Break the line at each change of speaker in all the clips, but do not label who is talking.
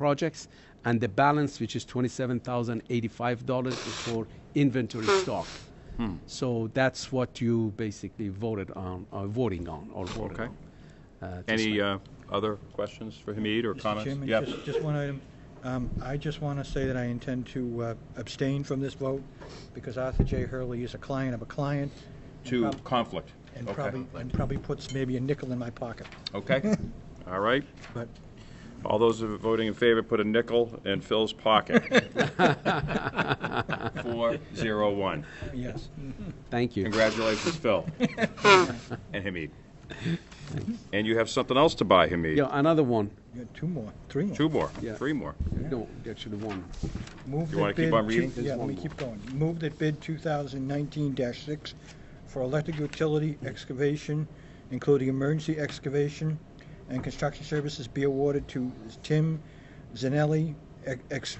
projects, and the balance, which is $27,085, is for inventory stock.
Hmm.
So that's what you basically voted on, uh, voting on, or voted
Okay.
on. uh, this
Any
way.
uh, other questions for Hamid or
Mr.
comments?
Chairman,
Yep.
just, just one item. Um, I just want to say that I intend to uh, abstain from this vote because Arthur J. Hurley is a client of a client. and
To
prob-
conflict.
And
Okay.
probably, and probably puts maybe a nickel in my pocket,
Okay. All right.
but
All those who are voting in favor, put a nickel in Phil's pocket. Four, zero, one.
yes.
uh,
Thank you.
Congratulations, Phil. And Hamid. And you have something else to buy, Hamid?
Yeah, another one.
You got two more, three more.
Two more,
Yeah.
three more.
No, actually one.
Move
You
that
wanna keep
bid
on reading?
two- Yeah,
There's
let
one
me
more.
keep going. Move that bid 2019-6 for electric utility excavation, including emergency excavation and construction services, be awarded to Tim Zanelli Ex-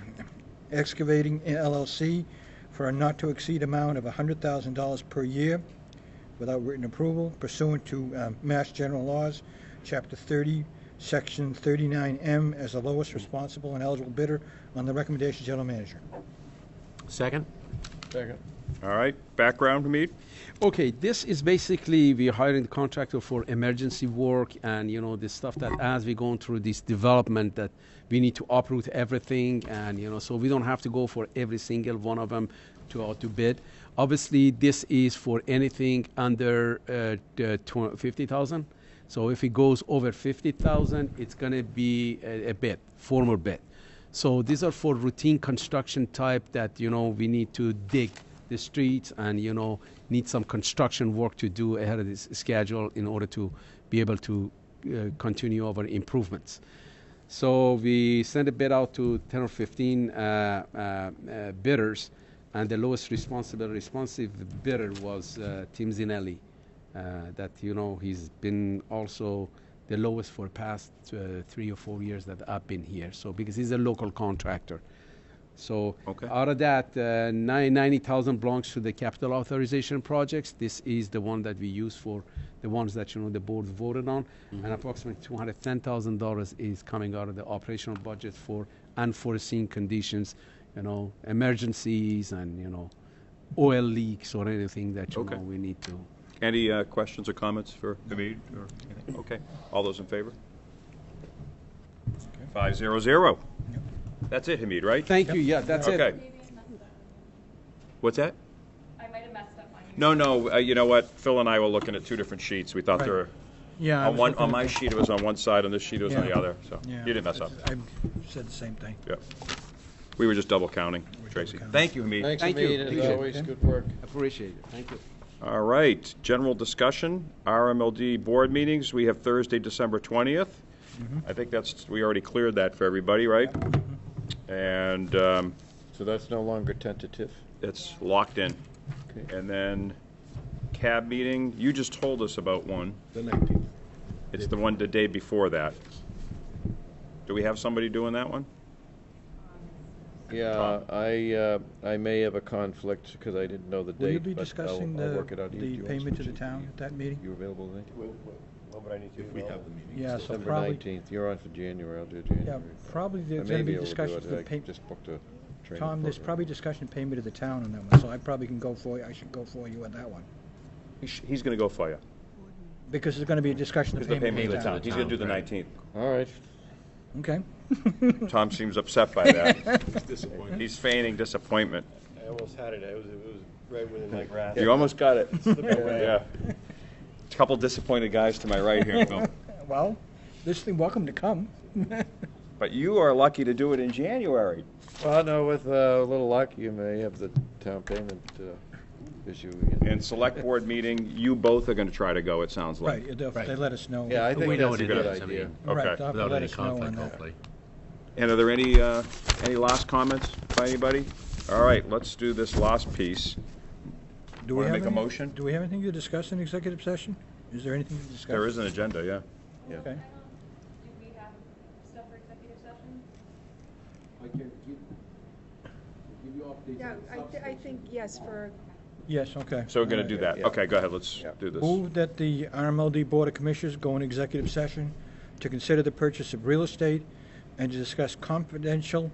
Excavating LLC for a not-to-exceed amount of $100,000 per year without written approval pursuant to um, Mass General Laws, Chapter 30, Section 39M, as the lowest responsible and eligible bidder on the recommendation of General Manager.
Second?
All right, background, Hamid?
Okay, this is basically we hiring the contractor for emergency work and you know the stuff that as we going through this development that we need to uproot everything and you know so we don't have to go for every single one of them to out to bid. Obviously, this is for anything under uh, the tw- fifty thousand. So if it goes over fifty thousand, it's gonna be a, a bid, formal bid. So these are for routine construction type that you know we need to dig the streets and you know need some construction work to do ahead of this schedule in order to be able to uh, continue our improvements. So we sent a bid out to 10 or 15 uh, uh, uh, bidders, and the lowest responsible responsive bidder was uh, Tim Zinelli. Uh, that you know he's been also the lowest for past uh, three or four years that I've been here. So because he's a local contractor, so
Okay.
out of that, uh, nine- 90,000 belongs to the capital authorization projects. This is the one that we use for the ones that, you know, the board voted on.
Mm-hmm.
And approximately $210,000 is coming out of the operational budget for unforeseen conditions, you know, emergencies and, you know, oil leaks or anything that, you
Okay.
know, we need to.
Any uh, questions or comments for Hamid? or anything? Okay, all those in favor? Five, zero, zero. That's it, Hamid, right?
Thank you, yeah, that's
Okay.
it.
Maybe I messed up.
What's that?
I might have messed up on you.
No, no, uh, you know what? Phil and I were looking at two different sheets. We thought they were,
Yeah. I
on
was
one,
looking
on
at
my
the-
sheet it was on one side, on this sheet it was on the
Yeah.
other, so you
Yeah.
didn't mess up.
I said the same thing.
Yeah. We were just double counting, Tracy.
counting.
Thank you, Hamid.
Thanks,
Thank you.
Hamid, as
Appreciate it.
always, good work.
Appreciate it, thank you.
All right, general discussion, RMLD board meetings, we have Thursday, December 20th.
Mm-hmm.
I think that's, we already cleared that for everybody, right?
Mm-hmm.
And um,
So that's no longer tentative?
it's locked in.
Okay.
And then CAB meeting, you just told us about one.
The 19th.
It's the one the day before that. Do we have somebody doing that one?
Yeah, I, uh, I may have a conflict because I didn't know the date.
Will you be
but I'll-
discussing
I'll
the,
work it out. You- do
the
you want
payment to
to-
the town at that meeting?
You available then?
We have the meeting.
Yeah, so
December
probably,
19th, you're on for January, I'll do
yeah,
January.
probably
I
there's
may
gonna be
able to do
discussions
it.
of
I
the payment.
just booked a training
Tom, there's
program.
probably discussion of payment to the town on that one, so I probably can go for, you. I should go for you on that one.
He sh- He's going to go for you.
Because there's gonna be a discussion of
It's the
payment
payment
to
of the town. He's going to do the 19th.
All right.
Okay.
Tom seems upset by that.
It's disappointing.
He's feigning disappointment.
I almost had it. I was, it was right within my grasp.
You almost got it.
away.
Yeah. Couple disappointed guys to my right here, Phil.
Well, this thing, welcome to come.
But you are lucky to do it in January.
Well, no, with uh, a little luck, you may have the town payment uh, issue again.
And select board meeting, you both are going to try to go, it sounds like.
Right, if they let us know.
Yeah, I
Right,
think
We know what
that's a
it
good
is, I
idea.
mean,
they'll have
Okay.
to
Without
let
any
us know on
conflict,
that.
hopefully.
And are there any, uh, any last comments by anybody? All right, let's do this last piece.
Do we
Wanna
have
make a
any-
motion?
Do we have anything to discuss in executive session? Is there anything to discuss?
There is an agenda, yeah.
yeah.
I don't- Um, Do we have stuff for executive session?
I can give, give you updates.
Yeah, I, thi- I think, yes, for
Yes, okay.
So we're going to
All
do
right.
that.
Yeah.
Okay, go ahead, let's
Yeah.
do this.
Move that the RMLD Board of Commissioners go in executive session to consider the purchase of real estate, and to discuss confidential